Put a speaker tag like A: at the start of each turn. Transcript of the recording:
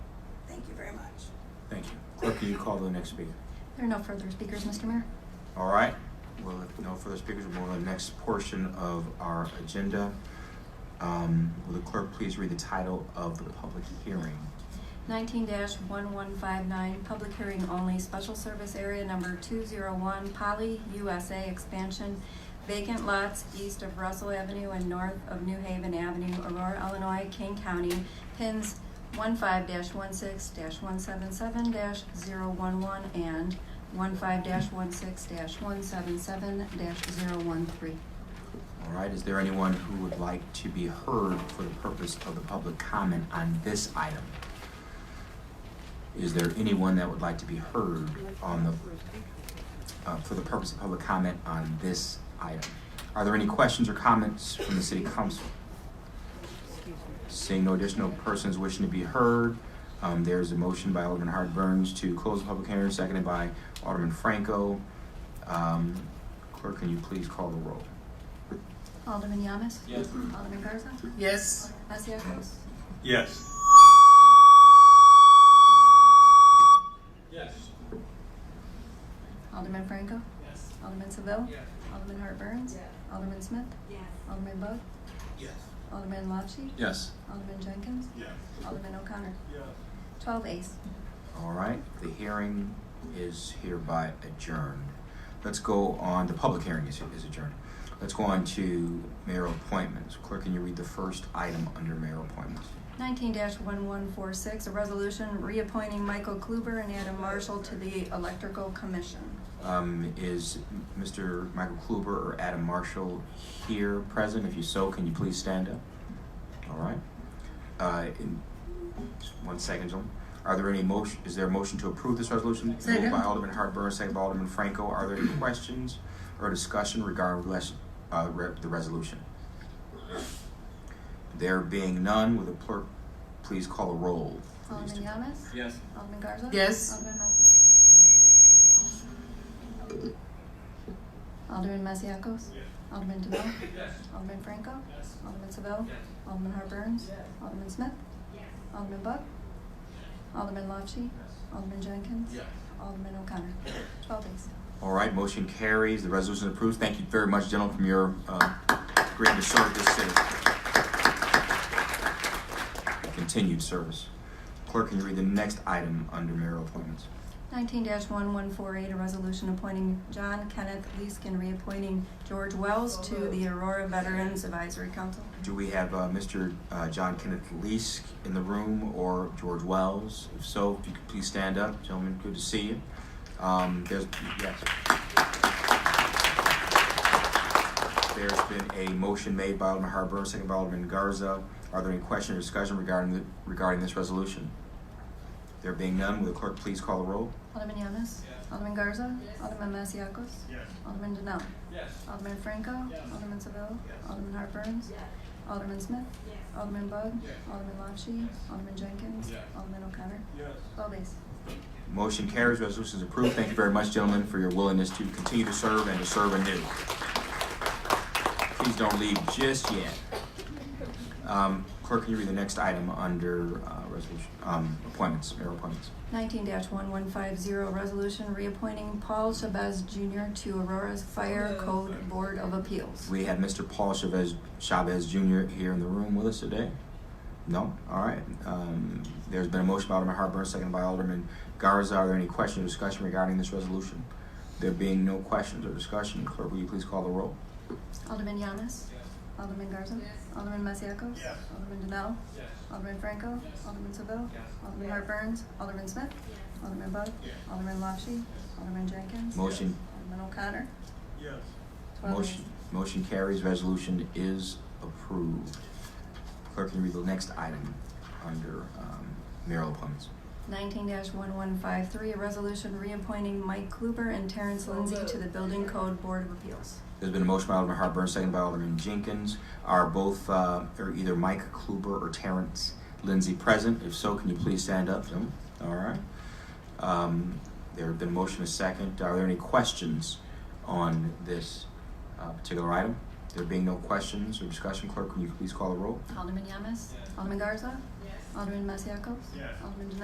A: very much.
B: Thank you. Clerk, will you call the next speaker?
C: There are no further speakers, Mr. Mayor.
B: All right, well, if no further speakers, we'll go to the next portion of our agenda. Um, will the clerk please read the title of the public hearing?
C: Nineteen one one five nine, public hearing only, special service area number two zero one, Poly USA expansion, vacant lots east of Russell Avenue and north of New Haven Avenue, Aurora, Illinois, King County, pins one five one six one seven seven 11 and one five one six one seven seven 13
B: All right, is there anyone who would like to be heard for the purpose of the public comment on this item? Is there anyone that would like to be heard on the, uh, for the purpose of public comment on this item? Are there any questions or comments from the city council? Seeing no additional persons wishing to be heard, um, there's a motion by Alderman Howard Burns to close the public hearing, seconded by Alderman Franco. Um, clerk, can you please call the roll?
C: Alderman Yamas?
D: Yes.
C: Alderman Garza?
A: Yes.
C: Asiakos?
D: Yes. Yes.
C: Alderman Franco?
D: Yes.
C: Alderman Seville?
D: Yes.
C: Alderman Hart Burns? Alderman Smith?
A: Yes.
C: Alderman Bug?
D: Yes.
C: Alderman Lopshi?
B: Yes.
C: Alderman Jenkins?
D: Yes.
C: Alderman O'Connor?
D: Yes.
C: Twelve A's.
B: All right, the hearing is hereby adjourned. Let's go on, the public hearing is, is adjourned. Let's go on to mayor appointments. Clerk, can you read the first item under mayor appointments?
C: Nineteen one one four six, a resolution reappointing Michael Kluber and Adam Marshall to the Electrical Commission.
B: Um, is Mr. Michael Kluber or Adam Marshall here present? If you so, can you please stand up? All right. Uh, in, just one second, gentlemen. Are there any motion, is there a motion to approve this resolution? Moved
A: Second.
B: by Alderman Hartburns, second by Alderman Franco. Are there any questions or discussion regarding res- uh, re- the resolution? There being none, will the clerk please call a roll? for these
C: Alderman
B: two?
C: Yamas?
D: Yes.
C: Alderman Garza?
A: Yes.
C: Alderman Messiacos? Alderman Masiacos? Alderman DeVille?
D: Yes.
C: Alderman Franco?
D: Yes.
C: Alderman Seville?
D: Yes.
C: Alderman Hart Burns? Alderman Smith? Alderman Bug? Alderman Lopshi? Alderman Jenkins?
D: Yes.
C: Alderman O'Connor? Twelve days.
B: All right, motion carries, the resolution approves. Thank you very much, gentlemen, from your uh, great service, city. Continued service. Clerk, can you read the next item under mayor appointments?
C: Nineteen one one four eight, a resolution appointing John Kenneth Leeskin, reappointing George Wells to the Aurora Veterans Advisory Council.
B: Do we have uh, Mr. uh, John Kenneth Leask in the room or George Wells? If so, if you could please stand up. Gentlemen, good to see you. Um, There's, yes. There's been a motion made by Alderman Harbour, second by Alderman Garza. Are there any questions or discussion regarding, the- regarding this resolution? There being none, will the clerk please call the roll?
C: Alderman Yamas? Alderman Garza? Alderman Masiacos?
D: Yes.
C: Alderman Denell?
D: Yes.
C: Alderman Franco?
D: Yes.
C: Alderman Seville?
D: Yes.
C: Alderman Hart Burns? Alderman Smith? Alderman Bug?
D: Yes.
C: Alderman Lopshi?
D: Yes.
C: Alderman Jenkins?
D: Yes.
C: Alderman O'Connor?
D: Yes.
C: Twelve days.
B: Motion carries, resolution is approved. Thank you very much, gentlemen, for your willingness to continue to serve and to serve anew. Please don't leave just yet. Um, Clerk, can you read the next item under uh, resolution, um, appointments, mayor appointments?
C: Nineteen one one five zero, resolution reappointing Paul Chavez Junior to Aurora's Fire Code Board of Appeals.
B: We have Mr. Paul Chavez, Chavez Jr. here in the room with us today. No? All right. Um, There's been a motion by Alderman Hartburns, seconded by Alderman Garza. Are there any questions or discussion regarding this resolution? There being no questions or discussion, clerk, will you please call the roll?
C: Alderman Yamas? Alderman Garza? Alderman Masiacos?
D: Yes.
C: Alderman Denell?
D: Yes.
C: Alderman Franco?
D: Yes.
C: Alderman Seville?
D: Yes.
C: Alderman Hart Burns? Alderman Smith? Alderman Bug?
D: Yes.
C: Alderman Lopshi? Alderman Jenkins?
B: Motion
C: Alderman O'Connor?
D: Yes.
C: Twelve
B: Motion,
C: ayes.
B: motion carries, resolution is approved. Clerk, can you read the next item under um, mayoral appointments?
C: Nineteen one one five three, a resolution reappointing Mike Kluber and Terrence Lindsay to the Building Code Board of Appeals.
B: There's been a motion by Alderman Hartburns, second by Alderman Jenkins. Are both, uh, or either Mike Kluber or Terrence Lindsay present? If so, can you please stand up, gentlemen? All right. Um, There have been a motion, a second. Are there any questions on this uh, particular item? There being no questions or discussion, clerk, can you please call the roll?
C: Alderman Yamas?
D: Yes.
C: Alderman Garza? Alderman Masiacos?
D: Yes.
C: Alderman Denell?